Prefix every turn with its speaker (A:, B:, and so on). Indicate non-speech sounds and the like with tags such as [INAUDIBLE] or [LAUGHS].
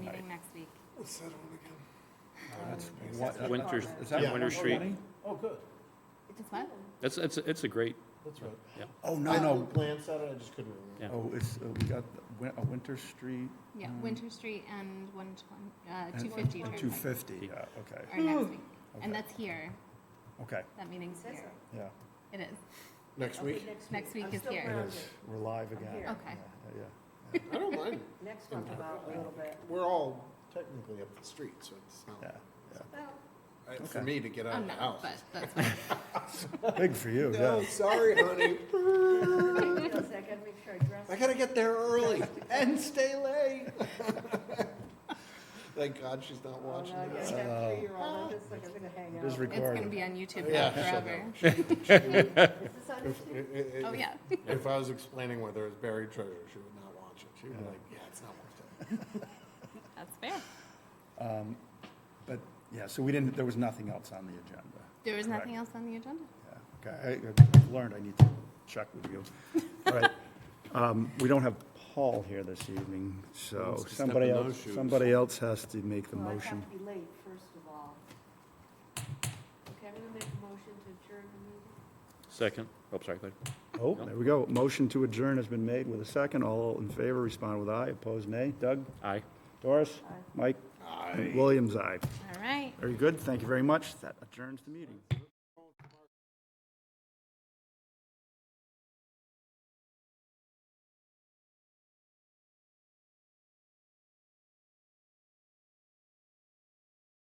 A: What's that one again?
B: What-
C: Winter-
B: Is that
A: Yeah.
B: Winter Street?
D: Oh, good,
C: It's mine.
E: That's, it's, it's a great,
D: that's right.
B: Oh,
D: I
B: no,
D: know
B: no.
D: glance at it, I just couldn't remember.
E: Yeah.
B: Oh, it's, uh, we got the Win- a Winter Street.
C: Yeah,
B: Mm.
C: Winter Street and one twenty, uh,
B: and-
C: two fifty.
B: Two fifty, yeah, okay,
C: Or next week.
B: Okay.
C: And that's here.
B: okay,
C: That meeting's here.
B: yeah,
C: It is.
D: Next
F: Okay,
D: week?
C: Next week
F: I'm
C: is
F: still
C: here.
B: it
F: grounded.
B: is, we're live
F: I'm
B: again.
F: here.
C: Okay.
B: Yeah, yeah.
D: I don't mind,
F: Next month about a little bit.
D: we're all technically up the street, so it's
B: Yeah,
D: not,
F: Well,
D: I- for
B: Okay.
D: me to get out
C: I'm
D: of the
C: not,
D: house.
C: but that's fine.
B: Big for you,
D: [LAUGHS] No,
B: yeah.
D: sorry, honey,
F: [LAUGHS] wait a second, make sure I dress.
D: I gotta get there early and stay late. [LAUGHS] Thank God she's not
F: Oh,
D: watching
F: no, I
D: this.
F: guess that
B: Uh,
F: three-year-old, I'm just like, I'm gonna hang out.
B: It's
C: It's gonna
B: recorded.
C: be on YouTube
D: Yeah,
C: now
D: shut
C: forever. [LAUGHS]
F: Is this on
D: If-
F: YouTube?
D: i- i-
C: Oh,
D: if-
C: yeah.
D: If I was explaining where there was buried treasure, she would not watch it. She would be like, yeah, it's not worth it.
C: That's fair.
B: But, yeah, so we didn't, there was nothing else on the agenda.
C: There was
B: Correct.
C: nothing else on the agenda?
B: Yeah, Okay, I- I've learned I need to check with you. All right, um, we don't have Paul here this evening,
E: Wants
B: so
E: to step
B: somebody
E: in those
B: else,
E: shoes.
B: somebody else has to make the
F: Well, I
B: motion.
F: have to be late, first of all. Okay, I'm gonna make a motion to adjourn the meeting.
E: second, oh, sorry, go ahead.
B: Oh, there we go. Motion to adjourn has been made with a second. All in favor, respond with aye. Opposed, nay. Doug?
E: Aye.
B: Doris?
F: Aye.
B: Mike? Williams, aye.
C: All right.
B: Very good. Thank you very much. That adjourns the meeting.